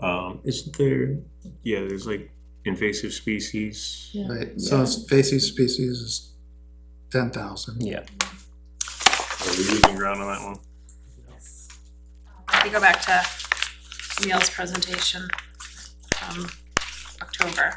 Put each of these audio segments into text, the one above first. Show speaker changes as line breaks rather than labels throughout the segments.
Um, isn't there, yeah, there's like invasive species.
Yeah.
Right, so it's invasive species is ten thousand.
Yeah. Are we losing ground on that one?
If you go back to Neil's presentation from October.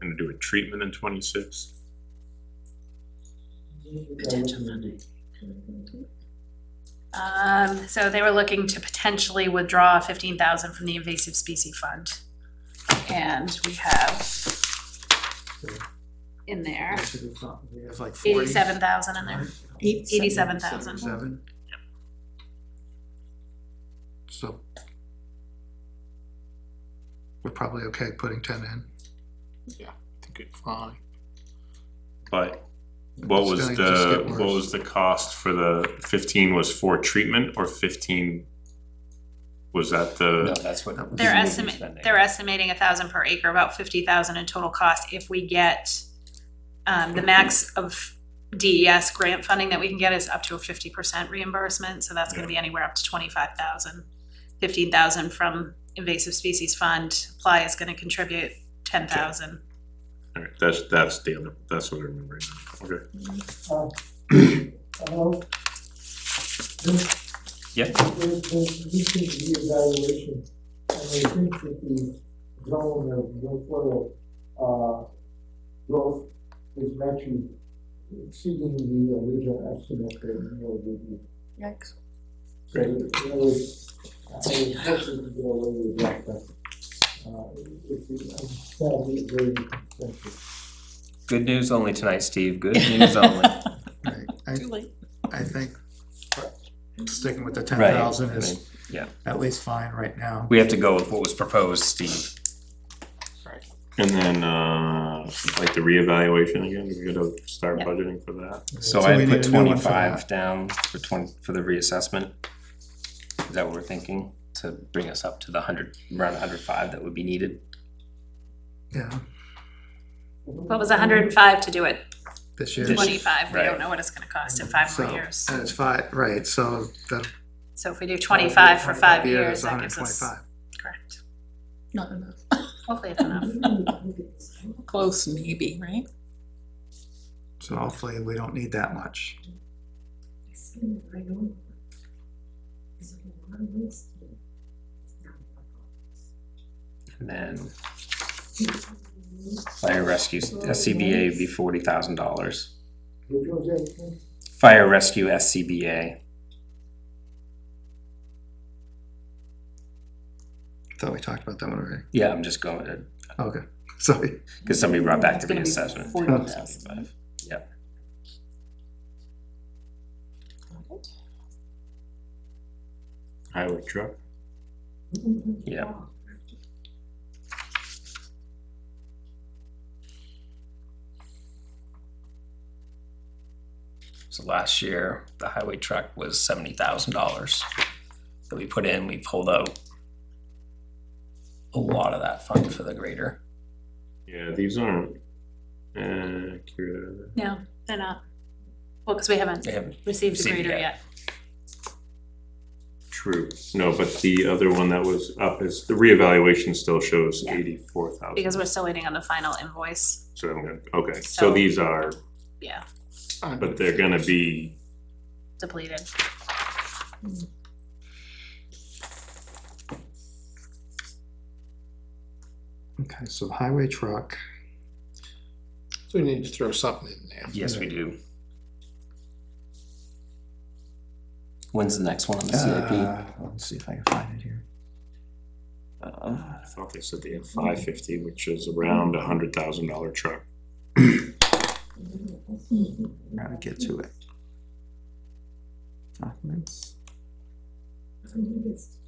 Gonna do a treatment in twenty-six?
Potential funding. Um, so they were looking to potentially withdraw fifteen thousand from the invasive species fund. And we have in there
We have like forty.
eighty-seven thousand in there. Eighty-seven thousand.
Seven. So. We're probably okay putting ten in.
Yeah.
I think it's fine.
But what
It's
was
gonna just
the,
get
what
worse.
was the cost for the fifteen was for treatment or fifteen? Was that
No,
the,
that's what.
That was-
we
They're
need to be
estimating,
spending.
they're estimating a thousand per acre, about fifty thousand in total cost if we get um, the max of DES grant funding that we can get is up to a fifty percent reimbursement, so that's gonna be anywhere up to twenty-five thousand. Fifteen thousand from invasive species fund, apply is gonna contribute ten thousand.
all right, that's, that's the other, that's what I remember. now. Okay.
Hello? This
Yeah,
is this recent reevaluation, and I think that the zone of no soil, uh, growth is actually exceeding the original estimate that Neil gave you.
Yikes.
So, in other words, I was hoping to get away with that, but, uh, if you, I'm sadly very expensive.
good news only tonight, Steve, good news only.
Right, I,
late.
I think uh, sticking with the ten
Right,
thousand
I mean,
is
yeah.
at least fine right now.
We have to go with what was proposed, Steve.
And then, uh, like the reevaluation again, we gotta start
Yeah.
budgeting for that.
So
we
I
need
put
a new one for
twenty-five down for twenty, for the reassessment. Is that what we're thinking? To bring us up to the hundred, around hundred five that would be needed?
that. Yeah,
What was hundred and five to do it,
this year.
twenty-five, we
Right. uh,
don't know what it's gonna cost in five more
So,
years.
And it's five, right, so that.
So if we do twenty-five
uh,
for five
year
years,
is
that gives us,
125.
correct,
Not enough.
hopefully it's enough.
Close maybe, right?
So hopefully we don't need that much.
And then fire rescue, SCBA would be forty thousand dollars.
Would you say-
Fire rescue SCBA,
Thought we talked about that one already.
yeah, I'm just going,
Okay, sorry.
because somebody brought back the
It's gonna be
reassessment.
40,000.
Yep.
Highway truck.
Yeah. So last year, the highway truck was seventy thousand dollars that we put in, we pulled out a lot of that fund for the grader.
Yeah, these aren't uh, accurate. are they?
No, they're not. uh, Well, because we haven't
They haven't,
received the grader
Received yet.
yet.
True. No, but the other one that was up is the reevaluation still shows
Yeah.
eighty-four thousand.
Because we're still waiting on the final invoice,
So I'm gonna, okay, so
So-
these are,
yeah,
but they're gonna be,
depleted.
Okay, so highway truck,
So we need to throw something in there.
yes, we do. When's the next one on the CIP?
uh, let's see if I can find it here.
Uh,
Um, I thought they said they had five fifty, which is around a hundred thousand dollar truck.
I'm gonna get to it. Documents.
It's